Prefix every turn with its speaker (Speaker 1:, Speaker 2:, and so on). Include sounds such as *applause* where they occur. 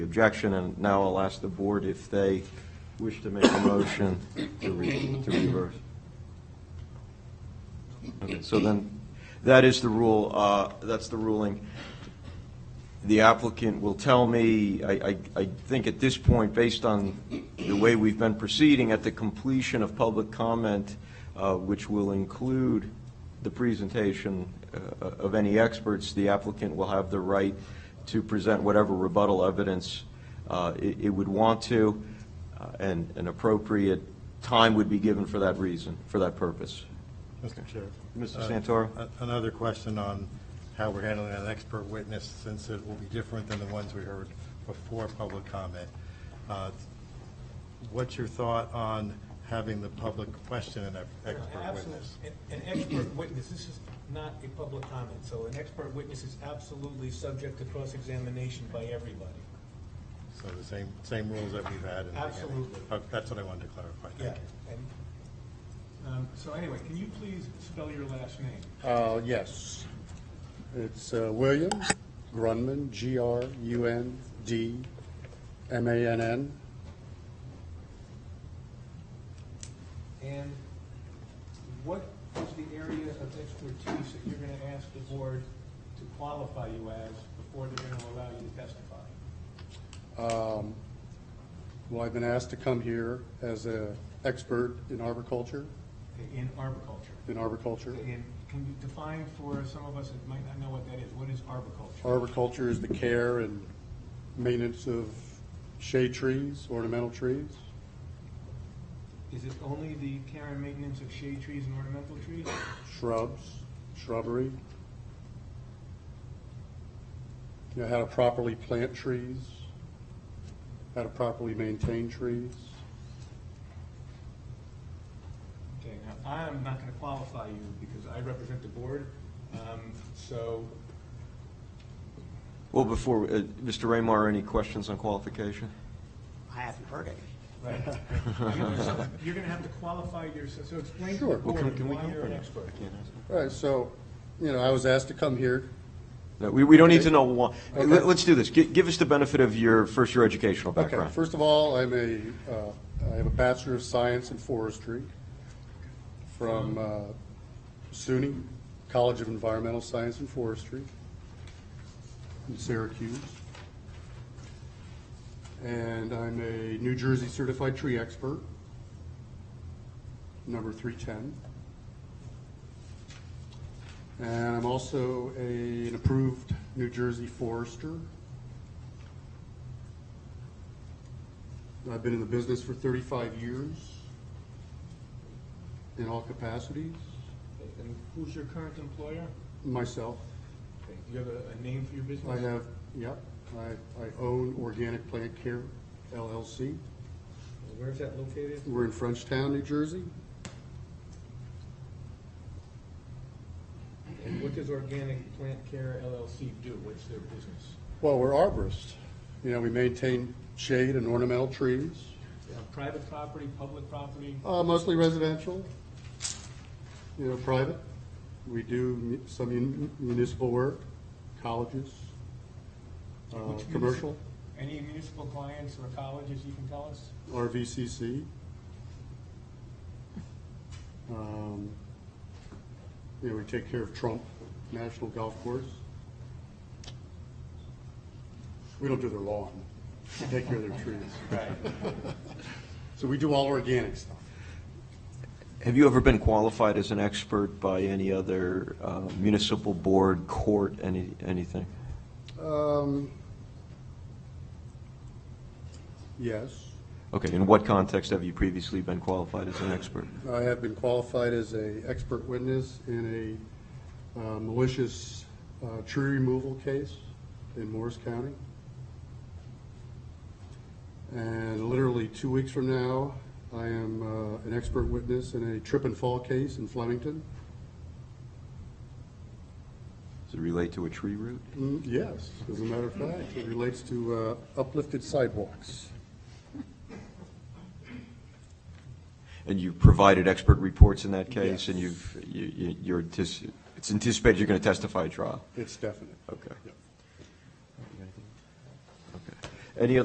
Speaker 1: objection, and now I'll ask the board if they wish to make a motion to re- to reverse. Okay, so then, that is the rule, uh, that's the ruling. The applicant will tell me, I, I- I think at this point, based on the way we've been proceeding, at the completion of public comment, uh, which will include the presentation uh, of any experts, the applicant will have the right to present whatever rebuttal evidence uh, it it would want to, uh, and an appropriate time would be given for that reason, for that purpose.
Speaker 2: Mr. Chair.
Speaker 1: Mr.
Speaker 2: Uh,
Speaker 1: Santoro?
Speaker 2: a- Another question on how we're handling an expert witness, since it will be different than the ones we heard before public comment. Uh, What's your thought on having the public question an ex- expert
Speaker 3: Absolute-
Speaker 2: witness?
Speaker 3: An an expert witness, this is not a public comment, so an expert witness is absolutely subject to cross-examination by everybody.
Speaker 2: So the same, same rules that we've had in the beginning.
Speaker 3: Absolutely.
Speaker 2: Oh, That's what I wanted to clarify.
Speaker 3: Yeah.
Speaker 2: Thank
Speaker 3: and, um, So anyway, can you please spell your last name?
Speaker 4: Uh, Yes. It's uh, William Grunman, G-R-U-N-D-M-A-N-N.
Speaker 3: And what is the area of expertise that you're going to ask the board to qualify you as before they're going to allow you to testify?
Speaker 4: Um, Well, I've been asked to come here as an expert in arboriculture,
Speaker 3: Okay, In arboriculture?
Speaker 4: in arboriculture.
Speaker 3: And can you define for some of us that might not know what that is, what is arboriculture?
Speaker 4: Arboriculture is the care and maintenance of shade trees, ornamental trees.
Speaker 3: Is it only the care and maintenance of shade trees and ornamental trees?
Speaker 4: shrubs, shrubbery. You know, how to properly plant trees, how to properly maintain trees.
Speaker 3: Okay, now, I'm not gonna qualify you because I represent the board, um, so,
Speaker 1: Well, before, uh, Mr. Raymar, any questions on qualification?
Speaker 5: I haven't heard it.
Speaker 1: *laughs*
Speaker 3: right. I mean, there's some- You're gonna have to qualify yourself, so explain to the
Speaker 4: Sure. Well,
Speaker 1: Well, can-
Speaker 3: board
Speaker 1: can we
Speaker 3: why
Speaker 1: go
Speaker 3: you're
Speaker 1: for
Speaker 3: an
Speaker 1: now?
Speaker 3: expert.
Speaker 1: I can't ask him.
Speaker 4: All right, so, you know, I was asked to come here.
Speaker 1: No, we, we don't need to know why.
Speaker 4: Okay.
Speaker 1: Let- Let's do this. Gi- Give us the benefit of your, first, your educational
Speaker 4: Okay,
Speaker 1: background.
Speaker 4: first of all, I'm a, uh, I have a Bachelor of Science in Forestry from uh, SUNY College of Environmental Science and Forestry in Syracuse. And I'm a New Jersey Certified Tree Expert, number 310. And I'm also a- an approved New Jersey Forester, I've been in the business for 35 years in all capacities,
Speaker 3: Okay, And who's your current employer?
Speaker 4: myself.
Speaker 3: Okay, Do you have a, a name for your
Speaker 4: I
Speaker 3: business?
Speaker 4: have, yep, I, I own Organic Plant Care LLC.
Speaker 3: Where's that located?
Speaker 4: We're in Frenchtown, New Jersey.
Speaker 3: And what does Organic Plant Care LLC do? What's their business?
Speaker 4: Well, we're arborists. You know, we maintain shade and ornamental trees,
Speaker 3: Uh, Private property, public property?
Speaker 4: uh, mostly residential, you know, private. We do mu- some mun- municipal work, colleges, uh,
Speaker 3: Which means-
Speaker 4: commercial,
Speaker 3: Any municipal clients or colleges you can tell us?
Speaker 4: RVCC. Um, You know, we take care of Trump National Golf Course. We don't do their lawn, we take care of their trees. So we do all organic stuff.
Speaker 1: Have you ever been qualified as an expert by any other uh, municipal board, court, any, anything?
Speaker 4: Um, Yes,
Speaker 1: Okay, in what context have you previously been qualified as an expert?
Speaker 4: I have been qualified as a expert witness in a uh, malicious uh, tree removal case in Morris County. And literally two weeks from now, I am uh, an expert witness in a trip and fall case in Flemington.
Speaker 1: Does it relate to a tree root?
Speaker 4: Mm, Yes, as a matter of fact, it relates to uh, uplifted sidewalks.
Speaker 1: And you've provided expert reports in that case,
Speaker 4: Yes.
Speaker 1: and you've, you- you- you're, antici- it's anticipated you're going to testify at trial?
Speaker 4: It's definite.
Speaker 1: Okay.
Speaker 4: Yep.
Speaker 1: Okay. Any